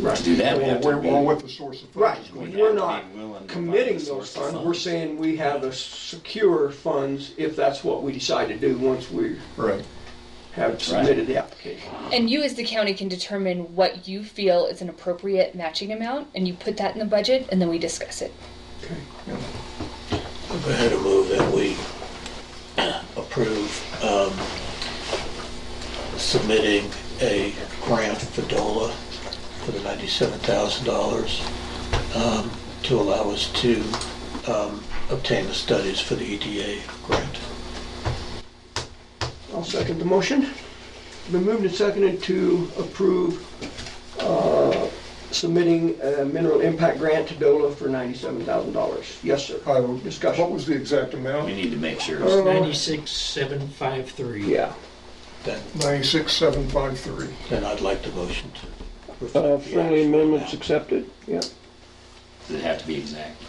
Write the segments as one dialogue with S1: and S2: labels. S1: Right.
S2: To do that, we
S3: Or
S2: have to
S3: where-
S2: be.
S3: or what the source of
S1: Right,
S3: funds is going to be.
S1: we're
S2: have to
S1: not
S2: be willing to
S1: committing
S2: find a
S1: those
S2: source of
S1: funds, we're
S2: funds.
S1: saying we have a secure funds if that's what we decide to do once we
S3: Right.
S1: have submitted the application.
S4: And you, as the county, can determine what you feel is an appropriate matching amount, and you put that in the budget, and then we discuss it.
S1: Okay.
S5: I'm going to move that we approve um, submitting a grant for DOLA for the $97,000 um, to allow us to um, obtain the studies for the EDA grant.
S1: I'll second the motion. Been moved and seconded to approve uh, submitting a mineral impact grant to DOLA for $97,000. Yes, sir.
S3: I will-
S1: Discussion.
S3: What was the exact
S2: We
S3: amount?
S2: need to make sure.
S1: Uh,
S6: Ninety-six, seven, five, three.
S1: Yeah.
S5: Then,
S3: 96753.
S5: then I'd like the motion to. reflect
S1: Uh,
S5: the
S1: Friendly
S5: actual
S1: amendments
S5: amount.
S1: accepted? Yeah.
S2: Does it have to be exact?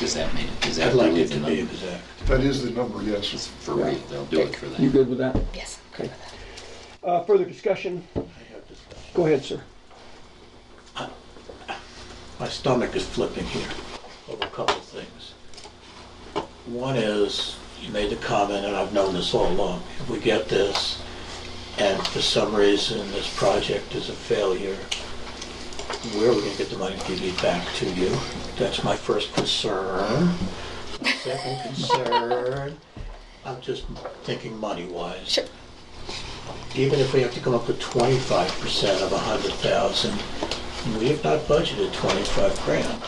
S2: Does that mean, does that
S5: I'd like
S2: really
S5: it
S2: the
S5: to be
S2: number?
S5: exact.
S3: That is the number, yes.
S2: For real, they'll do it for
S1: You
S2: that.
S1: good with that?
S4: Yes.
S1: Okay. Uh, Further discussion?
S5: I have discussed.
S1: Go ahead, sir.
S5: My stomach is flipping here over a couple of things. One is, you made the comment, and I've known this all along, if we get this, and for some reason this project is a failure, where are we gonna get the money to give it back to you? That's my first concern. My second concern, I'm just thinking money-wise.
S4: Sure.
S5: Even if we have to come up with twenty-five percent of a hundred thousand, we have not budgeted 25 grand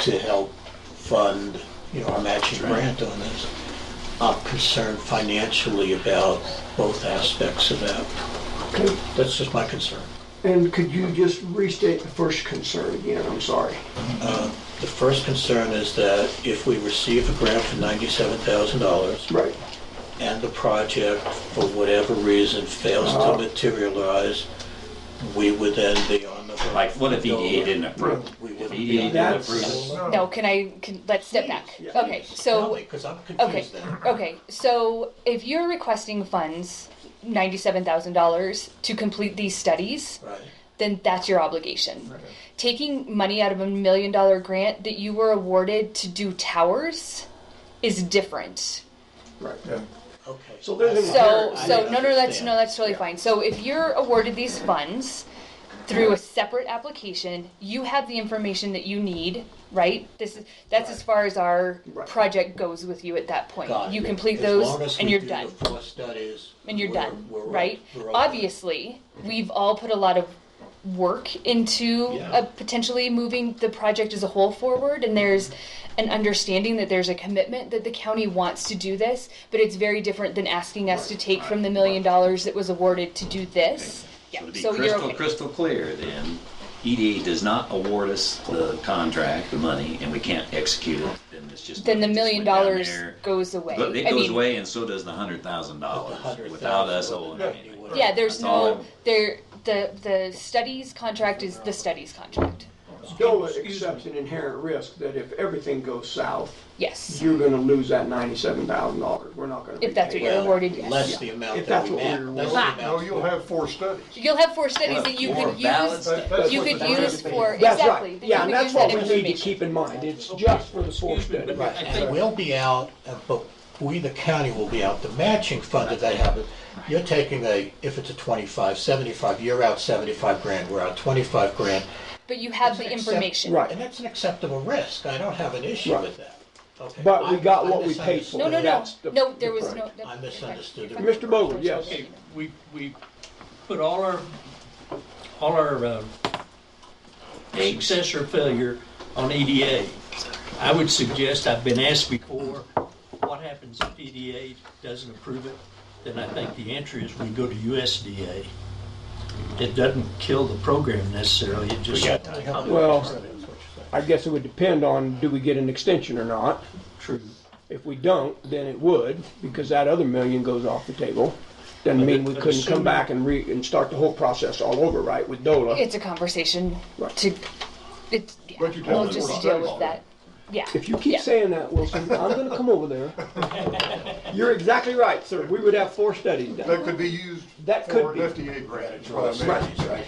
S5: to help fund, you know, our matching grant on this. I'm concerned financially about both aspects of that.
S1: Okay.
S5: That's just my concern.
S1: And could you just restate the first concern again? I'm sorry.
S5: The first concern is that if we receive a grant for $97,000,
S1: Right.
S5: and the project, for whatever reason, fails to materialize, we would then be on the...
S2: Like, what if EDA didn't approve?
S5: We
S2: If
S5: wouldn't
S2: EDA
S5: be...
S2: didn't approve, it,
S4: No, can I, can, let's step back. Okay, so,
S5: Because I'm
S4: okay,
S5: confused then.
S4: okay, so if you're requesting funds, ninety-seven thousand dollars, to complete these studies,
S5: Right.
S4: then that's your obligation. Taking money out of a million dollar grant that you were awarded to do towers is different.
S1: Right.
S3: Yeah.
S5: Okay.
S1: So there's an
S4: So,
S5: I
S4: so, no, no, that's,
S5: understand.
S4: no, that's totally fine. So if you're awarded these funds through a separate application, you have the information that you need, right? This is, that's as far as our
S1: Right.
S4: project goes with you at that point.
S5: Got it.
S4: You complete
S5: As long
S4: those
S5: as
S4: and
S5: we
S4: you're
S5: do
S4: done.
S5: the four studies,
S4: And you're
S5: we're-
S4: done,
S5: we're-
S4: right?
S5: we're all
S4: Obviously, we've all put a lot of work into
S5: Yeah.
S4: uh, potentially moving the project as a whole forward, and there's an understanding that there's a commitment that the county wants to do this, but it's very different than asking us to take from the million dollars that was awarded to do this. Yeah,
S2: So to be
S4: so you're
S2: crystal,
S4: okay.
S2: crystal clear, then, EDA does not award us the contract, the money, and we can't execute it, then it's just.
S4: Then the
S2: it's
S4: million
S2: went down
S4: dollars
S2: there.
S4: goes away.
S2: But it
S4: I
S2: goes
S4: mean,
S2: away, and so does the hundred thousand
S5: done. The
S2: dollars,
S5: hundred
S2: without
S5: thousand
S2: us
S5: would've
S2: owing
S5: been
S2: anything.
S5: anyway.
S4: Yeah, there's
S2: That's all
S4: no,
S2: I'm-
S4: there, the, the studies contract is the studies contract.
S1: DOLA accepts an inherent risk that if everything goes south,
S4: Yes,
S1: you're gonna lose that ninety-seven thousand dollars. We're not gonna
S4: if that's
S1: retain
S4: what
S1: it.
S4: you're
S5: Well,
S4: awarded, yes.
S5: Less the amount
S1: If
S5: that
S1: that's
S5: we
S1: what
S5: met.
S1: we're
S5: less the
S4: awarded.
S3: No,
S5: amount
S3: you'll
S5: we-
S3: have four studies.
S4: You'll have four studies that you
S2: More
S4: could
S2: balanced.
S4: use,
S3: That's
S4: you
S3: what
S4: could
S3: the
S4: use
S3: budget-
S4: for,
S1: That's
S4: exactly.
S1: right,
S4: that you
S1: yeah,
S4: could
S1: and that's
S4: use
S1: what
S4: that
S1: we need to
S4: information.
S1: keep in mind, it's just for the four study.
S5: And we'll be out, uh, but we, the county, will be out the matching fund that they have. You're taking a, if it's a 25, 75, you're out 75 grand, we're out 25 grand.
S4: But you have the
S5: Except-
S4: information.
S1: Right.
S5: And that's an acceptable risk. I don't have an issue
S1: Right.
S5: with that. Okay.
S1: But we
S5: I-
S1: got
S5: I
S1: what we paid for.
S4: No, no, no,
S1: That's the-
S4: no, there was
S1: the
S4: no.
S1: point.
S4: that-
S5: I misunderstood it.
S1: Mr. Bowler, yes.
S7: Okay, we, we put all our, all our uh, success or failure on EDA. I would suggest, I've been asked before, what happens if EDA doesn't approve it? Then I think the answer is we go to USDA. It doesn't kill the program necessarily, it just.
S1: Well, I guess it would depend on, do we get an extension or not?
S7: True.
S1: If we don't, then it would, because that other million goes off the table. Doesn't
S7: But
S1: mean
S7: it-
S1: we
S7: but
S1: couldn't come
S7: assuming-
S1: back and re, and start the whole process all over, right, with DOLA?
S4: It's a conversation
S1: Right.
S4: to, it's, yeah,
S3: But you don't
S4: we'll
S3: have
S4: just
S3: to
S4: deal
S3: worry
S4: with
S3: about
S4: that, yeah.
S1: If you keep
S4: yeah.
S1: saying that, Wilson, I'm gonna come over there. You're exactly right, sir, we would have four studies done.
S3: That could be used
S1: That could
S3: for
S1: be.
S3: an FDA grant. is what I meant.
S1: Right.